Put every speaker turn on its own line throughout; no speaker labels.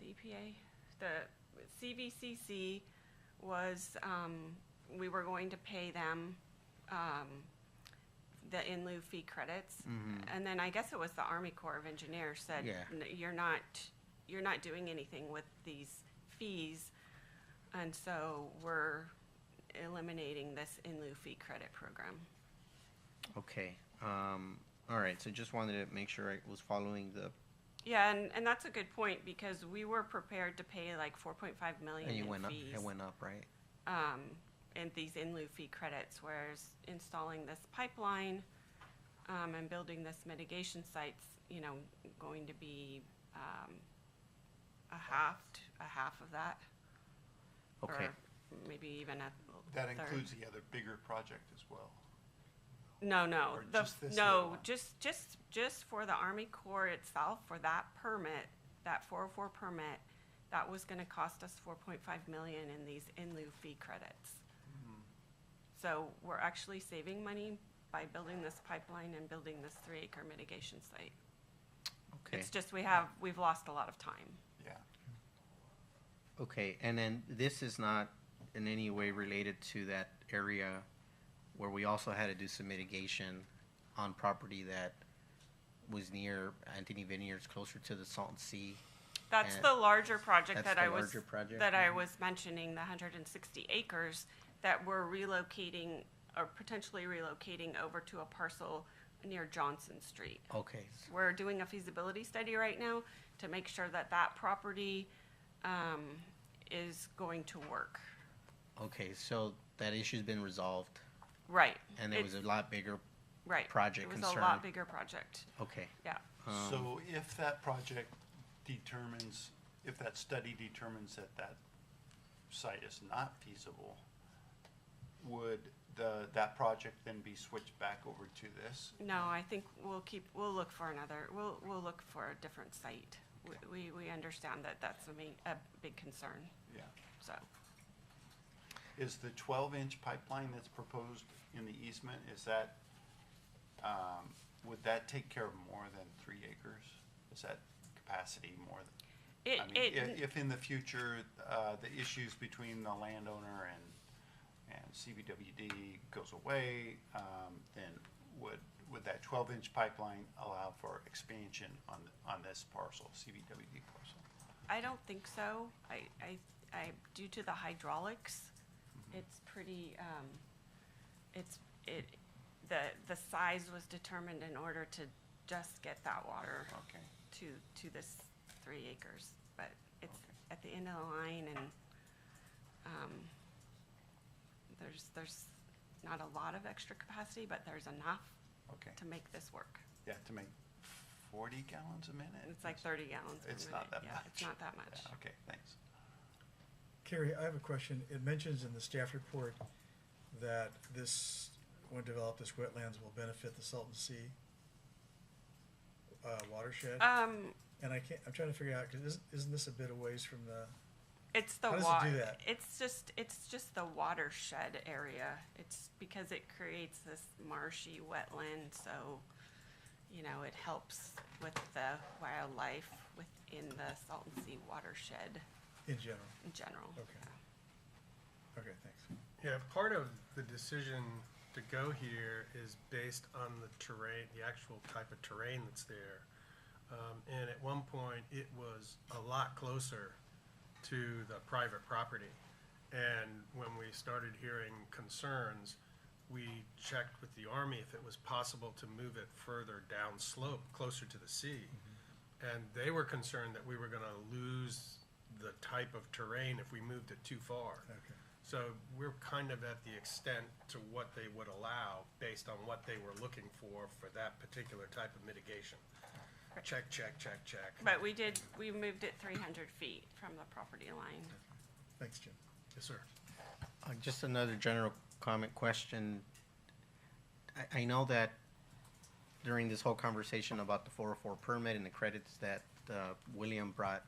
EPA, E the CVCC was, um, we were going to pay them, um, the in lieu fee credits.
Mm-hmm.
And then I guess it was the Army Corps of Engineers said,
Yeah.
"N- you're not, you're not doing anything with these fees. And so we're eliminating this in lieu fee credit program.
Okay, um, all right, so just wanted to make sure I was following the,
Yeah, and, and that's a good point because we were prepared to pay like four point five million
and you went
in
up,
fees.
it went up, right?
Um, and these in lieu fee credits, whereas installing this pipeline, um, and building this mitigation site's, you know, going to be, um, a half, a half of that.
Okay,
or Maybe even a
That
third.
includes the other bigger project as well.
No, no,
Or
the,
just this little
no,
one?
just, just, just for the Army Corps itself, for that permit, that four oh four permit, that was gonna cost us four point five million in these in lieu fee credits.
Mm-hmm.
So we're actually saving money by building this pipeline and building this three acre mitigation site.
okay,
It's just we have, we've lost a lot of time.
Yeah.
okay, and then this is not in any way related to that area where we also had to do some mitigation on property that was near Anthony Vineyards, closer to the Salton Sea.
That's
And
the larger project
that's
that
the
I was,
larger project,
that I was mentioning, the hundred and sixty acres that we're relocating or potentially relocating over to a parcel near Johnson Street.
Okay,
We're doing a feasibility study right now to make sure that that property, um, is going to work.
okay, so that issue's been resolved,
Right.
and there
It-
was a lot bigger,
right.
project
It was a lot
concern.
bigger project,
okay,
yeah.
Um,
So if that project determines, if that study determines that that site is not feasible, would the, that project then be switched back over to this?
No, I think we'll keep, we'll look for another, we'll, we'll look for a different site. We- We, we understand that that's a main, a big concern,
Yeah.
so.
Is the twelve-inch pipeline that's proposed in the easement, is that, um, would that take care of more than three acres? Is that capacity more than?
It,
I mean,
it,
if, if in the future, uh, the issues between the landowner and, and CBWD goes away, um, then would, would that twelve-inch pipeline allow for expansion on, on this parcel, CBWD parcel?
I don't think so. I, I, I, due to the hydraulics,
Mm-hmm.
it's pretty, um, it's, it, the, the size was determined in order to just get that water
Okay,
to, to this three acres. But it's
Okay.
at the end of the line and, um, there's, there's not a lot of extra capacity, but there's enough
okay,
to make this work.
yeah, to make forty gallons a minute?
It's like thirty gallons per minute.
It's not that
Yeah, It's
much.
not that much.
Yeah, Okay, thanks.
Carrie, I have a question. It mentions in the staff report that this, when developed, this wetlands will benefit the Salton Sea uh, watershed.
Um,
And I can't, I'm trying to figure out, because isn't this a bit of ways from the,
It's the
How does it
water.
do that?
It's just it's just the watershed area. It's because it creates this marshy wetland, so you know it helps with the wildlife within the Salton Sea watershed
in general?
in general.
Okay. Okay, thanks.
Yeah, part of the decision to go here is based on the terrain, the actual type of terrain that's there. Um, and at one point, it was a lot closer to the private property. And when we started hearing concerns, we checked with the Army if it was possible to move it further down slope, closer to the sea. And they were concerned that we were gonna lose the type of terrain if we moved it too far.
Okay.
So we're kind of at the extent to what they would allow based on what they were looking for for that particular type of mitigation. Check, check, check, check.
But we did we moved it 300 feet from the property line.
Thanks, Jim.
Yes, sir.
Uh, Just another general comment question. I, I know that during this whole conversation about the 404 permit and the credits that uh, William brought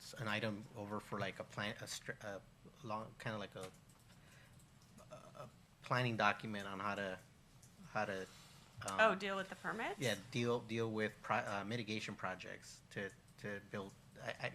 s- an item over for like a plan, a str- a long, kind of like a, a- a planning document on how to, how to, um,
oh, deal with the permits.
yeah, deal, deal with pro- uh, mitigation projects to, to build. I, I,